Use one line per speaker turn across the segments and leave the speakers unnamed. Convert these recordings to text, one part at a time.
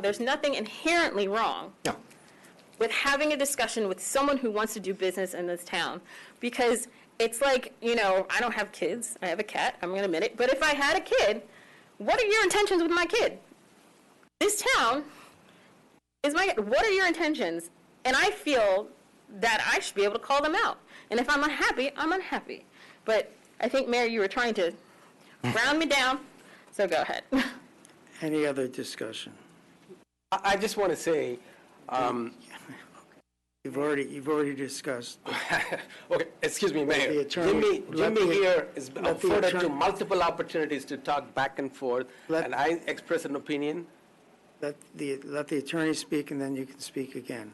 There's nothing inherently wrong
No.
with having a discussion with someone who wants to do business in this town. Because it's like, you know, I don't have kids, I have a cat, I'm gonna admit it, but if I had a kid, what are your intentions with my kid? This town is my, what are your intentions? And I feel that I should be able to call them out. And if I'm unhappy, I'm unhappy. But I think, Mayor, you were trying to round me down, so go ahead.
Any other discussion?
I, I just want to say, um,
You've already, you've already discussed.
okay, excuse me, Mayor.
the attorney-
Jimmy,
let
Jimmy
the-
here is
let the
afforded to
attorney-
multiple opportunities to talk back and forth,
Let-
and I express an opinion.
Let the, let the attorney speak, and then you can speak again.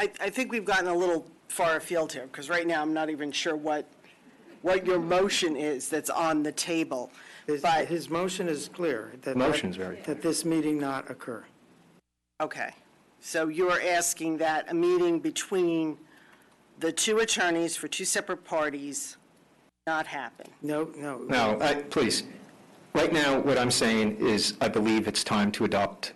I, I think we've gotten a little far afield here, because right now, I'm not even sure what, what your motion is that's on the table.
His,
But,
his motion is clear. that-
Motion's very clear.
That this meeting not occur.
okay, so you are asking that a meeting between the two attorneys for two separate parties not happen?
No, no.
No, I, uh, please. Right now, what I'm saying is, I believe it's time to adopt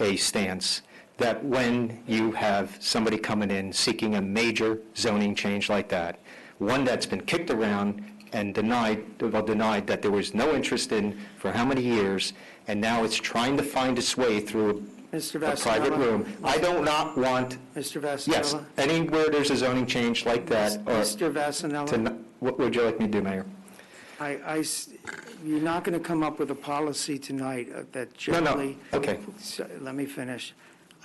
a stance that when you have somebody coming in seeking a major zoning change like that, one that's been kicked around and denied, well, denied that there was no interest in for how many years, and now it's trying to find its way through
Mr.
a private
Vasanella?
room. I do not want,
Mr.
yes, Uh,
Vasanella?
anywhere there's a zoning change like that, or,
Mr.
to
Vasanella,
n- what would you like me to do, Mayor?
I, I s- you're not going to come up with a policy tonight uh, that
No, no,
generally.
okay.
So, Let me finish.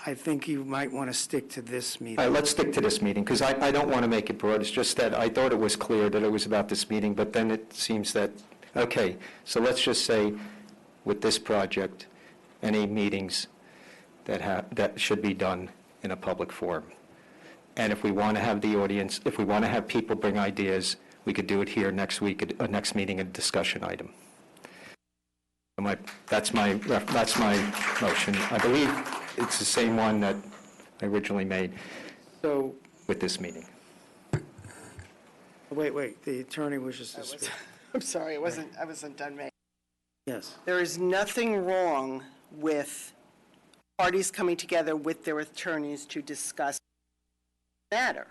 I think you might want to stick to this
All
meeting.
right, let's stick to this meeting, because I, I don't want to make it broad. It's just that I thought it was clear that it was about this meeting, but then it seems that, okay, so let's just say with this project, any meetings that have, that should be done in a public forum. And if we want to have the audience, if we want to have people bring ideas, we could do it here next week, at uh, next meeting, a discussion item. And My, that's my, ref- that's my motion. I believe it's the same one that I originally made
So,
with this meeting.
wait, wait, the attorney wishes to speak.
I'm sorry, I wasn't, I wasn't done making.
Yes.
There is nothing wrong with parties coming together with their attorneys to discuss the matter.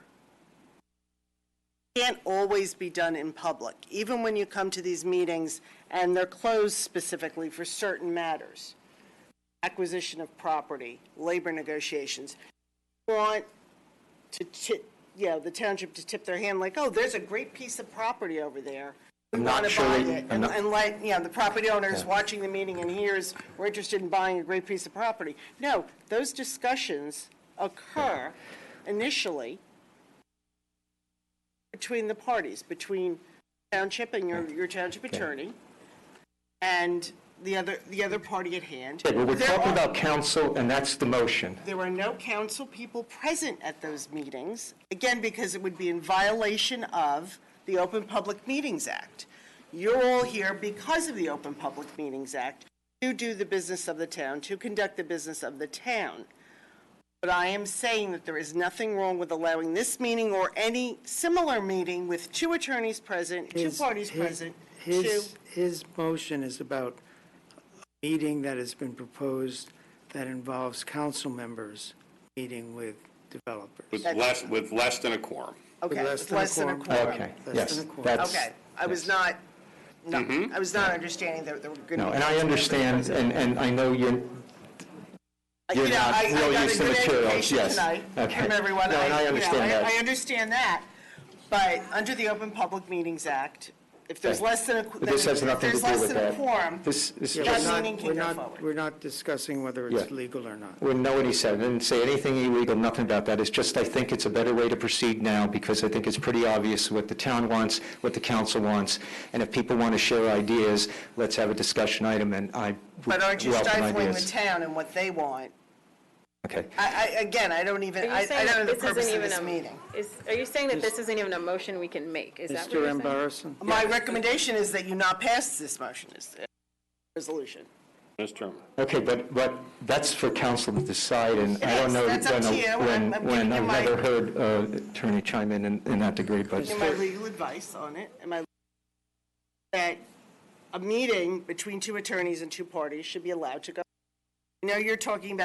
Can't always be done in public, even when you come to these meetings and they're closed specifically for certain matters. Acquisition of property, labor negotiations. You Want to tip, you know, the township to tip their hand like, oh, there's a great piece of property over there. We
I'm not
want to
sure
buy
they-
it.
I'm
And
not-
and let, you know, the property owner is watching the meeting and hears, we're interested in buying a great piece of property. No, those discussions occur initially between the parties, between township and your, your township attorney and the other, the other party at hand.
But we're
There
talking
are-
about council, and that's the motion.
There were no council people present at those meetings, again, because it would be in violation of the Open Public Meetings Act. You're all here because of the Open Public Meetings Act to do the business of the town, to conduct the business of the town. But I am saying that there is nothing wrong with allowing this meeting or any similar meeting with two attorneys present, two
His-
parties
his-
present, two.
His, his motion is about a meeting that has been proposed that involves council members meeting with developers.
With less, with less than a quorum.
Okay,
less
with
than a
less than a
quorum.
quorum.
Okay,
That's
yes,
in the court.
that's,
Okay, I was not, no, I was not understanding that there were going to be.
no, and I understand, and, and I know you're,
You
you're
Uh, know,
not
I- I
real
got a
used to
good
materials,
education
yes.
tonight
Okay.
From everyone.
No, and I
you know,
understand
I
that.
understand that, but under the Open Public Meetings Act, if there's
Okay.
less than a. qu-
But this
then-
has nothing to
If
do
there's
with
less than a
that.
quorum,
This, this
Yeah,
is
That
just,
we're not-
meeting can
we're
go
not-
forward.
We're not discussing whether it's
Yeah.
legal or not.
we know what he said, I didn't say anything illegal, nothing about that. It's just, I think it's a better way to proceed now, because I think it's pretty obvious what the town wants, what the council wants, and if people want to share ideas, let's have a discussion item, and I would
but aren't you
welcome
stifling the
ideas.
town and what they want?
Okay.
I, I, again, I don't even,
Are
I
you
I
saying
don't know
that
the
this
purpose
isn't
of
even
this
a-
meeting.
is- Are you saying that this isn't even a motion we can make? Is that what
Mr.
you're saying?
Embarrasson?
My recommendation is that you not pass this motion, is, resolution.
Mr. Chairman.
Okay, but, but that's for council to decide, and I don't know
Yes, that's up
when,
to you. I'm-
when,
I'm
when,
giving you
I've
my-
never heard uh, attorney chime in in in that degree, but,
Am I legal advice on it? Am I, that a meeting between two attorneys and two parties should be allowed to go? Now you're talking about